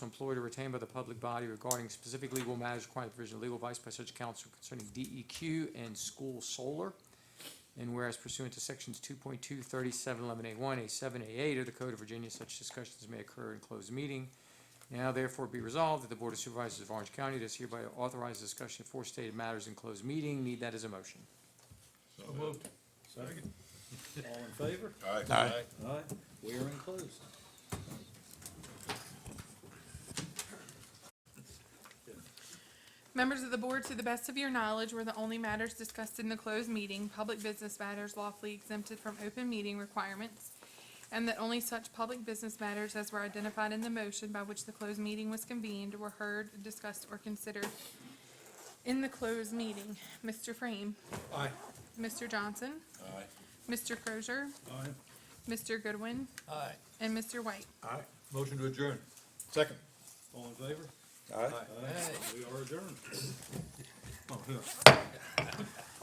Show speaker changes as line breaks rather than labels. employed or retained by the public body regarding specific legal matters requiring the provision of legal advice by such counsel concerning DEQ and school solar. And whereas pursuant to sections 2.2, 37, 11A1, A seven, A eight of the Code of Virginia, such discussions may occur in closed meeting. Now therefore be resolved that the Board of Supervisors of Orange County does hereby authorize discussion of four stated matters in closed meeting. Need that as a motion.
So moved.
Second. All in favor?
Aye.
Aye.
Aye. We are enclosed.
Members of the board, to the best of your knowledge, were the only matters discussed in the closed meeting, public business matters lawfully exempted from open meeting requirements, and that only such public business matters as were identified in the motion by which the closed meeting was convened were heard, discussed, or considered in the closed meeting. Mr. Frame?
Aye.
Mr. Johnson?
Aye.
Mr. Crozier?
Aye.
Mr. Goodwin?
Aye.
And Mr. White?
Aye. Motion to adjourn.
Second.
All in favor?
Aye.
We are adjourned. Oh, yeah.